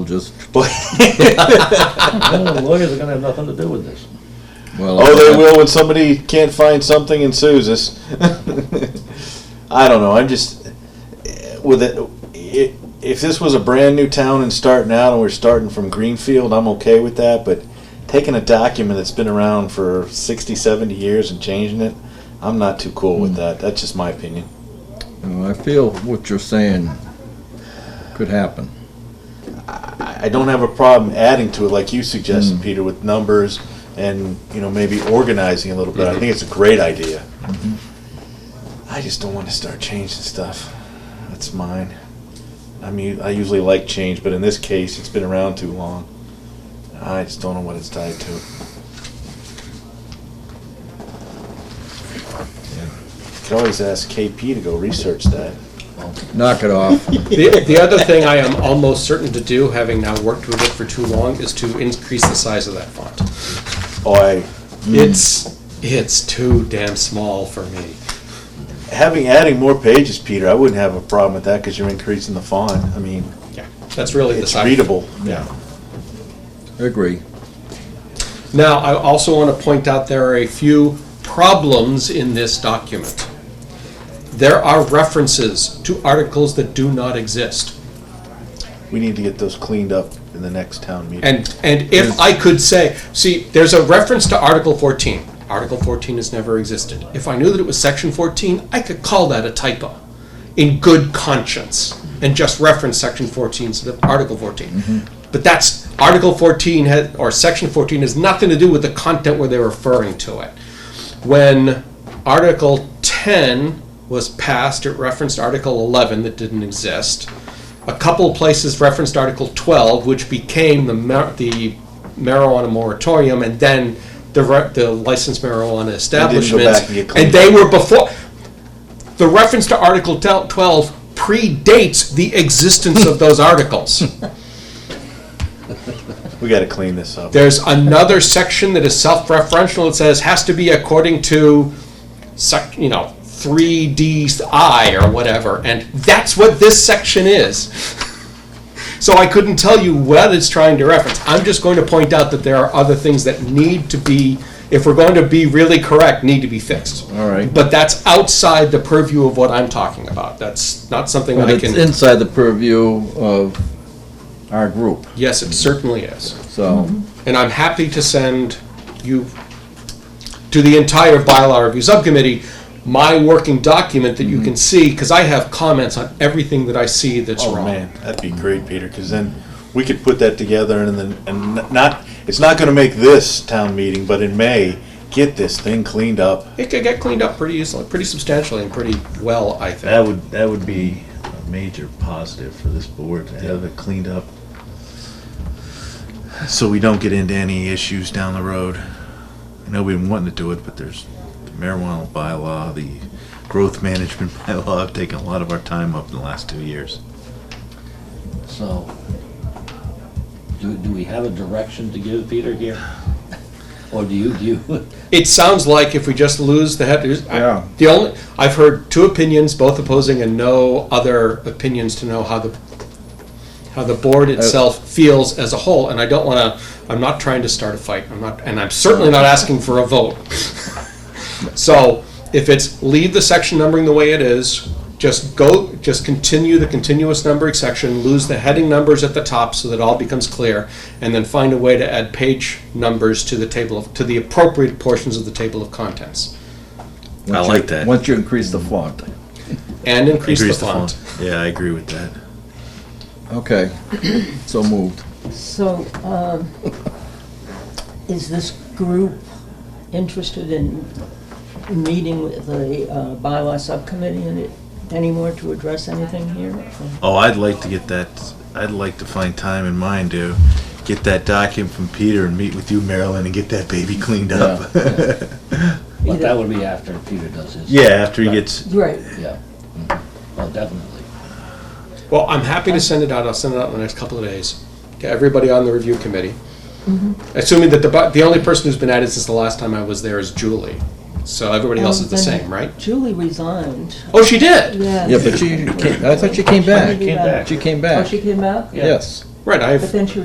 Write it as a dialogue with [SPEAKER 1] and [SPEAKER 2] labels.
[SPEAKER 1] just,
[SPEAKER 2] No, the lawyers are gonna have nothing to do with this.
[SPEAKER 1] well.
[SPEAKER 3] Oh, they will when somebody can't find something and sues us. I don't know. I'm just with it, it. If this was a brand new town and starting out, and we're starting from Greenfield, I'm okay with that. But taking a document that's been around for 60, 70 years and changing it, I'm not too cool with that. That's just my opinion.
[SPEAKER 1] Well, I feel what you're saying could happen.
[SPEAKER 3] I I don't have a problem adding to it, like you suggested, Peter, with numbers and you know maybe organizing a little bit. I think it's a great idea. I just don't want to start changing stuff. That's mine. I mean, I usually like change, but in this case, it's been around too long. I just don't know what it's tied to. Could always ask KP to go research that.
[SPEAKER 1] Knock it off.
[SPEAKER 4] The, the other thing I am almost certain to do, having now worked with it for too long, is to increase the size of that font.
[SPEAKER 3] Oh, I
[SPEAKER 4] It's, it's too damn small for me.
[SPEAKER 3] Having adding more pages, Peter, I wouldn't have a problem with that because you're increasing the font. I mean,
[SPEAKER 4] Yeah, that's really the
[SPEAKER 3] it's
[SPEAKER 4] size.
[SPEAKER 3] readable.
[SPEAKER 4] Yeah.
[SPEAKER 1] Agree.
[SPEAKER 4] Now, I also want to point out there are a few problems in this document. There are references to articles that do not exist.
[SPEAKER 3] We need to get those cleaned up in the next town meeting.
[SPEAKER 4] And, and if I could say, see, there's a reference to Article 14. Article 14 has never existed. If I knew that it was Section 14, I could call that a typo in good conscience and just reference Section 14 instead of Article 14. But that's, Article 14 had, or Section 14 has nothing to do with the content where they're referring to it when Article 10 was passed, it referenced Article 11 that didn't exist. A couple of places referenced Article 12, which became the mar- the marijuana moratorium, and then the re- the licensed marijuana establishments,
[SPEAKER 3] back and get cleaned
[SPEAKER 4] and they were before. The reference to Article 12 predates the existence of those articles.
[SPEAKER 3] we got to clean this up.
[SPEAKER 4] There's another section that is self-referential. It says has to be according to, sec, you know, 3DI or whatever, and that's what this section is. So I couldn't tell you what it's trying to reference. I'm just going to point out that there are other things that need to be, if we're going to be really correct, need to be fixed.
[SPEAKER 1] All right.
[SPEAKER 4] But that's outside the purview of what I'm talking about. That's not something
[SPEAKER 1] But
[SPEAKER 4] I
[SPEAKER 1] it's
[SPEAKER 4] can.
[SPEAKER 1] inside the purview of our group,
[SPEAKER 4] yes, it certainly is.
[SPEAKER 1] so.
[SPEAKER 4] And I'm happy to send you, to the entire bylaw review subcommittee, my working document that you can see, because I have comments on everything that I see that's
[SPEAKER 3] Mm-hmm. oh
[SPEAKER 4] wrong.
[SPEAKER 3] man, that'd be great, Peter, because then we could put that together and then and n- not. It's not going to make this town meeting, but in May, get this thing cleaned up.
[SPEAKER 4] It could get cleaned up pretty easily, pretty substantially and pretty well, I think.
[SPEAKER 5] That would, that would be a major positive for this board to have it cleaned up.
[SPEAKER 3] so we don't get into any issues down the road. I know we've been wanting to do it, but there's the marijuana bylaw, the growth management bylaw have taken a lot of our time up in the last two years.
[SPEAKER 6] So, do, do we have a direction to give Peter here? Or do you, do you,
[SPEAKER 4] It sounds like if we just lose the head, there's- I-
[SPEAKER 1] Yeah.
[SPEAKER 4] the only, I've heard two opinions, both opposing and no other opinions to know how the, how the board
[SPEAKER 3] Uh,
[SPEAKER 4] itself feels as a whole, and I don't wanna, I'm not trying to start a fight, I'm not, and I'm certainly not asking for a vote. So, if it's leave the section numbering the way it is, just go, just continue the continuous numbering section, lose the heading numbers at the top so that all becomes clear, and then find a way to add page numbers to the table of, to the appropriate portions of the table of contents.
[SPEAKER 3] I
[SPEAKER 1] once you-
[SPEAKER 3] like that.
[SPEAKER 1] Once you increase the font.
[SPEAKER 4] And increase the font.
[SPEAKER 3] Yeah, I agree with that.
[SPEAKER 1] Okay, so moved.
[SPEAKER 7] So, um, is this group interested in meeting with the uh, bylaw subcommittee in it anymore to address anything here?
[SPEAKER 3] Oh, I'd like to get that, I'd like to find time in mine to get that document from Peter and meet with you, Marilyn, and get that baby cleaned up.
[SPEAKER 6] but that would be after Peter does his.
[SPEAKER 3] Yeah, after he gets,
[SPEAKER 7] Right,
[SPEAKER 6] Yeah. Mhm. Oh, definitely.
[SPEAKER 4] Well, I'm happy to send it out, I'll send it out in the next couple of days, to everybody on the review committee. Assuming that the, bu- the only person who's been added since the last time I was there is Julie, so everybody else is the
[SPEAKER 7] Um,
[SPEAKER 4] same, right?
[SPEAKER 7] Julie resigned.
[SPEAKER 4] Oh, she did?
[SPEAKER 7] Yeah.
[SPEAKER 1] Yeah, but she, I thought she came
[SPEAKER 7] She
[SPEAKER 1] back.
[SPEAKER 7] came back.
[SPEAKER 1] She came
[SPEAKER 7] Oh,
[SPEAKER 1] back.
[SPEAKER 7] she came out?
[SPEAKER 1] Yes.
[SPEAKER 4] Right, I've.
[SPEAKER 7] But then she